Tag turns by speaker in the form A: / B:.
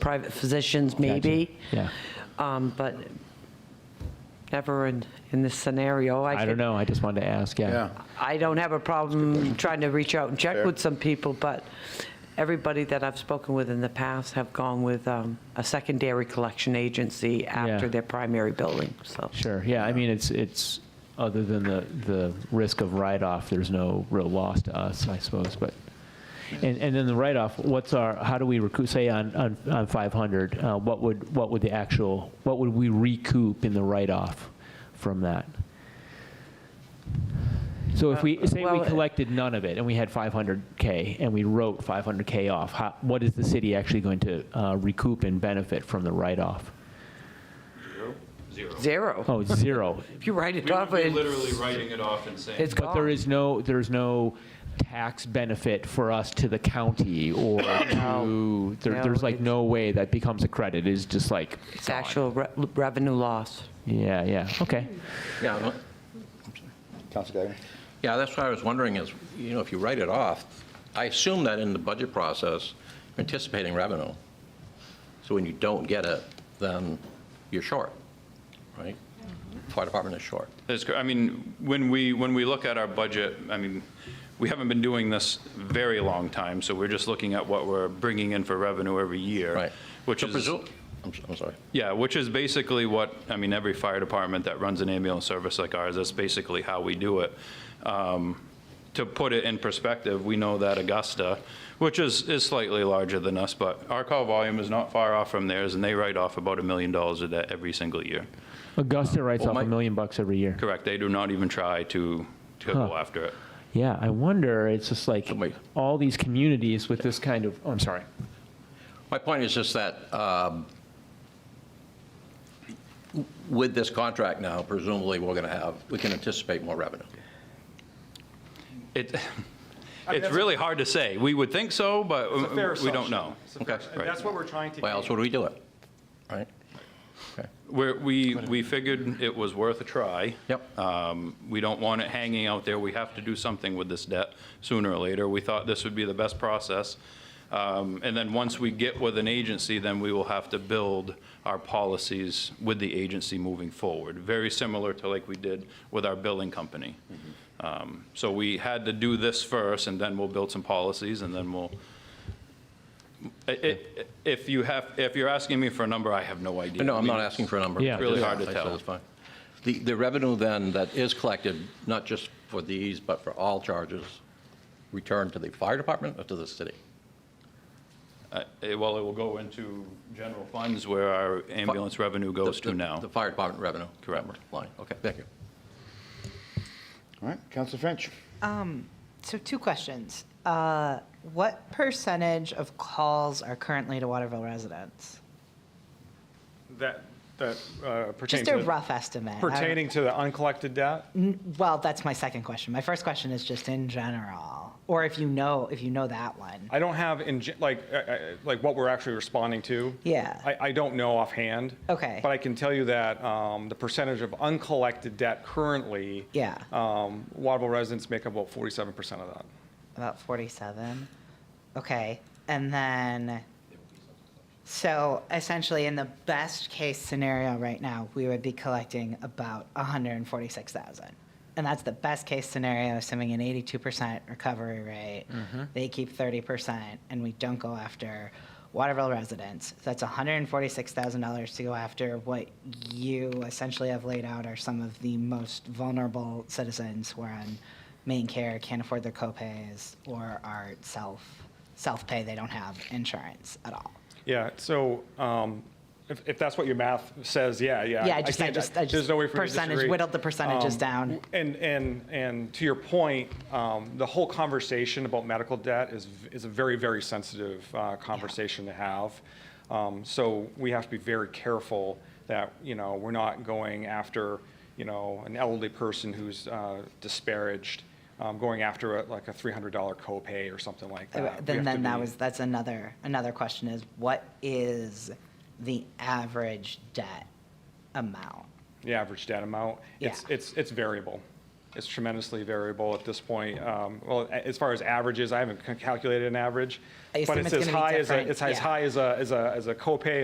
A: private physicians, maybe.
B: Yeah.
A: Um, But never in, in this scenario.
B: I
A: could-
B: don't know. I just wanted to ask. Yeah.
C: Yeah.
A: I don't have a problem trying to reach out and check
C: Fair.
A: with some people, but everybody that I've spoken with in the past have gone with um, a secondary collection agency after
B: Yeah.
A: their primary building, so.
B: Sure. Yeah. I mean, it's it's other than the the risk of write off, there's no real loss to us, I suppose. But and and then the write off. What's our? How do we recoup? Say on on, on 500. Uh, what would what would the actual? What would we recoup in the write off from that? So if we say
A: well,
B: we collected none of it and we had 500k and we wrote 500k off, how, what is the city actually going to uh, recoup and benefit from the write-off?
A: Zero.
B: Oh, zero.
A: If you write it
D: We would
A: off,
D: be
A: it-
D: literally writing it off and saying,
A: it's
B: But there
A: gone.
B: is no, there's no tax benefit for us to the county or to, there-
A: No,
B: there's like
A: it's-
B: no way that becomes a credit. It's just like,
A: It's actual re- revenue loss.
B: yeah, yeah, okay.
E: Yeah, well,
C: Councilor Gagnon?
E: yeah, that's what I was wondering is, you know, if you write it off, I assume that in the budget process, you're anticipating revenue. So when you don't get it, then you're short, right? Fire department is short.
D: That's cor- I mean, when we, when we look at our budget, I mean, we haven't been doing this very long time, so we're just looking at what we're bringing in for revenue every year.
E: Right.
D: Which
E: So
D: is,
E: presu- I'm s- I'm sorry.
D: yeah, which is basically what, I mean, every fire department that runs an ambulance service like ours, that's basically how we do it. Um, To put it in perspective, we know that Augusta, which is, is slightly larger than us, but our call volume is not far off from theirs, and they write off about a million dollars of that every single year.
B: Augusta writes
E: Well,
B: off a
E: my-
B: million bucks every year.
D: Correct, they do not even try to, to go
B: Huh.
D: after it.
B: Yeah, I wonder, it's just like
E: Somebody-
B: all these communities with this kind of, oh, I'm sorry.
E: My point is just that um, with this contract now, presumably, we're going to have, we can anticipate more revenue.
D: It, it's really hard to say. We would think so, but
F: It's a fair
D: we don't
F: assumption.
D: know.
F: It's a fair-
E: Okay.
F: and That's what we're trying to.
E: Why else
F: do.
E: would we do it, right?
D: We're, we, we figured it was worth a try.
E: Yep.
D: Um, We don't want it hanging out there. We have to do something with this debt sooner or later. We thought this would be the best process. Um, And then once we get with an agency, then we will have to build our policies with the agency moving forward, very similar to like we did with our billing company.
E: Mm-hmm.
D: Um, So we had to do this first, and then we'll build some policies, and then we'll, I- I- if you have, if you're asking me for a number, I have no idea.
E: No, I'm
D: I mean,
E: not asking for a number.
B: Yeah.
D: Really hard to
E: I said
D: tell.
E: it's fine. The, the revenue then that is collected, not just for these, but for all charges, returned to the fire department or to the city?
D: Uh, eh, Well, it will go into general funds where our ambulance revenue goes to
E: The- the-
D: now.
E: The fire department revenue.
D: Correct.
E: Line, okay, thank you.
C: All right, Councilor French?
G: So two questions. Uh, What percentage of calls are currently to Waterville residents?
F: That, that uh, pertain
G: Just a
F: to, the-
G: rough Mm-hmm. estimate. I don't-
F: pertaining to the uncollected debt?
G: Well, that's my second question. My first question is just in general, or if you know, if you know that one.
F: I don't have, in ge- like, uh, uh, like what we're actually responding to.
G: Yeah.
F: I, I don't know offhand.
G: Okay.
F: But I can tell you that um, the percentage of uncollected debt currently.
G: Yeah.
F: um, Waterville residents make up about 47% of that.
G: About 47. Okay. And then, so essentially, in the best case scenario right now, we would be collecting about 146,000. And that's the best case scenario, assuming an 82% recovery rate. They keep 30%, and we don't go after Waterville residents. That's $146,000 to go after what you essentially have laid out are some of the most vulnerable citizens who are on main care, can't afford their copays, or are self self-pay. They don't have insurance at all.
F: Yeah, so um, if, if that's what your math says, yeah, yeah.
G: Yeah, I just- I
F: can't-
G: just- I just-
F: There's no way for me to
G: percentage-
F: disagree.
G: whittled the percentages
F: Um,
G: down.
F: And, and, and to your point, um, the whole conversation about medical debt is, v- is a very, very sensitive uh, conversation to have. Um, So we have to be very careful that, you know, we're not going after, you know, an elderly person who's uh, disparaged, um, going after a- like a $300 copay or something like
G: Uh,
F: that. We
G: Then,
F: have to
G: then that
F: be-
G: was, that's another, another question is, what is the average debt amount?
F: the average debt amount. It's,
G: Yeah.
F: it's, it's variable. It's tremendously variable at this point. Um, Well, a- as far as averages, I haven't c- calculated an average,
G: I
F: but
G: assume
F: it's
G: it's
F: as
G: gonna be
F: high as, a-
G: different,
F: it's as
G: yeah.
F: high as a, as a, as a copay